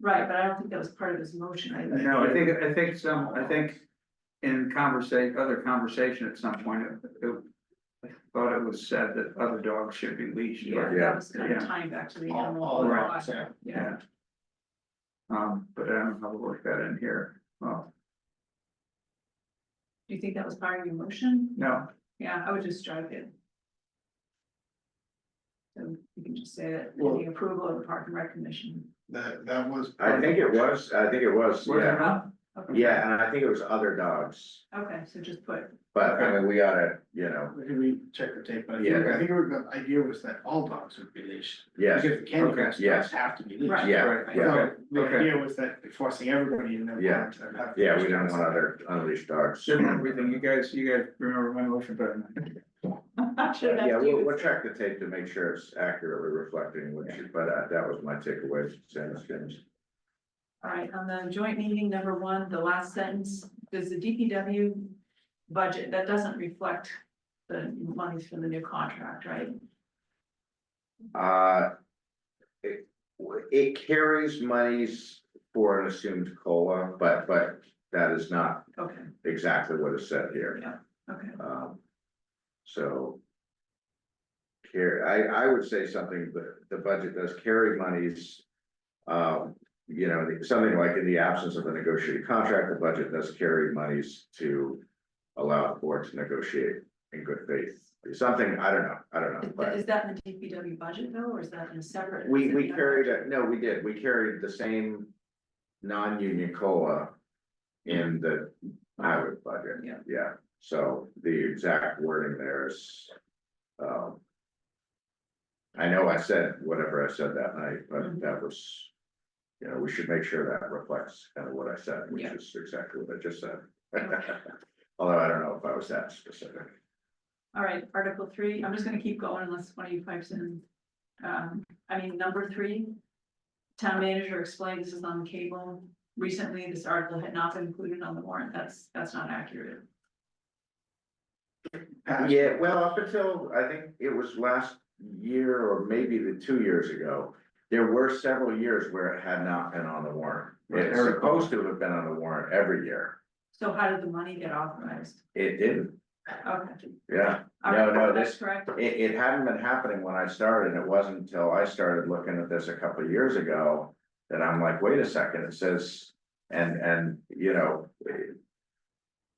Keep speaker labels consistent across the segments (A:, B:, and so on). A: Right, but I don't think that was part of his motion. I
B: No, I think, I think some, I think in conversation, other conversation at some point, it- it. I Thought it was said that other dogs should be leashed.
A: Yeah,
B: or-
A: that was kind of
B: Yeah.
A: tying back to the
C: All-
A: animal.
C: all
A: law.
C: dogs, yeah.
A: Yeah,
B: Um, but I don't know how to work that in here, well,
A: do you think that was part of your motion?
B: no,
A: Yeah, I would just strike it. So you can just say that
C: Well-
A: the approval of the park and rec commission.
C: That, that was.
D: I think it was, I think it was,
B: was it
D: yeah,
B: not?
A: Okay.
D: yeah, and I think it was other dogs,
A: Okay, so just put,
D: but I mean, we oughta, you know,
C: We can recheck the tape, but I think,
D: Yeah.
C: I think the idea was that all dogs would be leashed.
D: yes,
C: Because the candy crush dogs
D: Yes.
C: have to be leashed.
A: Right.
D: yeah,
B: Right,
D: yeah.
C: So the
B: Okay.
C: idea was that forcing everybody in there.
D: Yeah. Yeah, we don't want other unleashed dogs.
B: Shouldn't everything, you guys, you guys remember my motion better than I do.
A: should have
D: Yeah,
A: asked
D: we'll,
A: you.
D: we'll check the tape to make sure it's accurately reflecting what you, but uh, that was my takeaway, Sam's things.
A: All right, on the joint meeting, number one, the last sentence, does the DPW budget, that doesn't reflect the monies from the new contract, right?
D: Uh. It, it carries monies for an assumed COLA, but, but that is not
A: Okay,
D: exactly what is said here,
A: okay,
D: um. So. Here, I, I would say something, but the budget does carry monies. Um, you know, something like in the absence of a negotiated contract, the budget does carry monies to. Allow the board to negotiate in good faith, something, I don't know, I don't know,
A: Is that-
D: but.
A: is that in the DPW budget though, or is that in a separate?
D: We, we carried it, no, we did, we carried the same non-union COLA in the highway budget.
A: Yeah.
D: Yeah, so the exact wording there is, um. I know I said whatever I said that night, but
A: Mhm.
D: that was, you know, we should make sure that reflects kind of what I said, which
A: Yeah.
D: is exactly what I just said.
A: Okay.
D: Although I don't know if I was that specific.
A: All right, article three, I'm just gonna keep going unless one of you pipes in. Um, I mean, number three. Town manager explained this is on cable. Recently, this article had not been included on the warrant. That's, that's not accurate.
D: Yeah, well, up until, I think it was last year or maybe the two years ago, there were several years where it had not been on the warrant. It's
B: Right.
D: supposed to have been on the warrant every year.
A: So how did the money get authorized?
D: It didn't,
A: Okay.
D: yeah.
A: All
D: No,
A: right,
D: no,
A: that's
D: this-
A: Correct,
D: It, it hadn't been happening when I started. and It wasn't until I started looking at this a couple of years ago that I'm like, wait a second, it says, and, and, you know,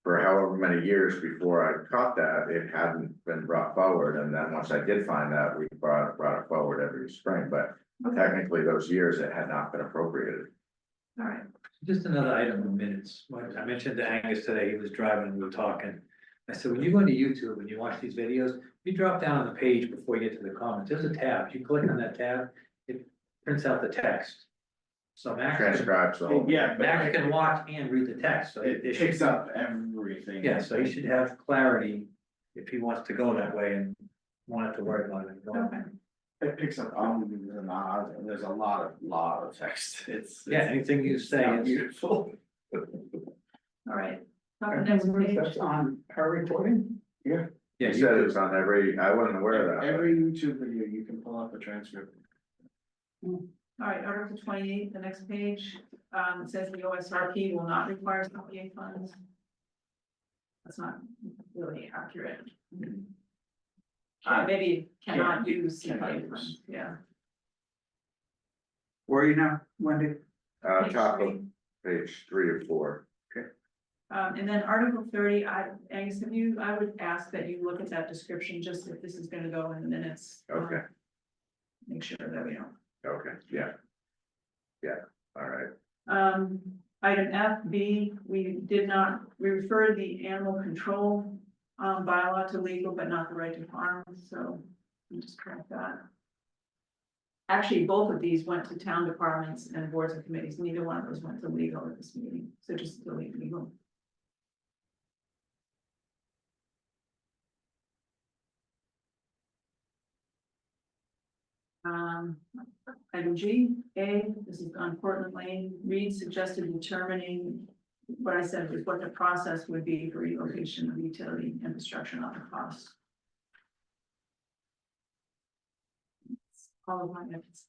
D: for however many years before I caught that, it hadn't been brought forward. And then once I did find that, we brought, brought it forward every spring, but
A: okay,
D: technically those years it had not been appropriated.
A: all right,
E: Just another item in minutes, When I mentioned to Angus today, he was driving, and we were talking. I said, when you go into YouTube and you watch these videos, you drop down on the page before you get to the comments, there's a tab, you click on that tab, it prints out the text. So Max, can-
D: Transcribed, so.
C: Yeah, but
E: Max
C: it
E: can watch and read the text, so it
C: it
E: it
C: picks
E: should,
C: up everything.
E: yeah, so he should have clarity if he wants to go that way and won't have to worry about it.
A: okay.
C: It picks up, um, there's a lot, there's a lot of, lot of text, it's.
E: Yeah, anything you
C: it's
E: say
C: not
E: is,
C: Beautiful.
A: All right, Up the next page,
C: on our recording?
E: yeah,
D: He
E: you
D: said it
E: could,
D: was on every, I wasn't aware of that.
C: Every YouTube video, you can pull up a transcript.
A: all right, article twenty-eight, the next page, um, it says the OSRP will not require CPA funds. That's not really accurate. Uh, maybe cannot use
C: Cannot
A: CPA
C: use.
A: funds, yeah.
B: Where are you now, Wendy?
D: Uh,
A: Page
D: top of
A: three.
D: page three or four.
A: Um, and then article thirty, I, Angus, have you, I would ask that you look at that description, just if this is gonna go in the minutes. um,
D: Okay.
A: Make sure that we don't
D: Okay, yeah. Yeah, all right.
A: Um, item F, B, we did not, we referred the animal control um bylaw to legal, but not the right to farm, so we just correct that. Actually, both of these went to town departments and boards and committees, neither one of those went to legal at this meeting, so just delete legal. Um, Item G, A, this is on Portland Lane, Reed suggested determining what I said was what the process would be for relocation of utility infrastructure, not the cost. All of my notes.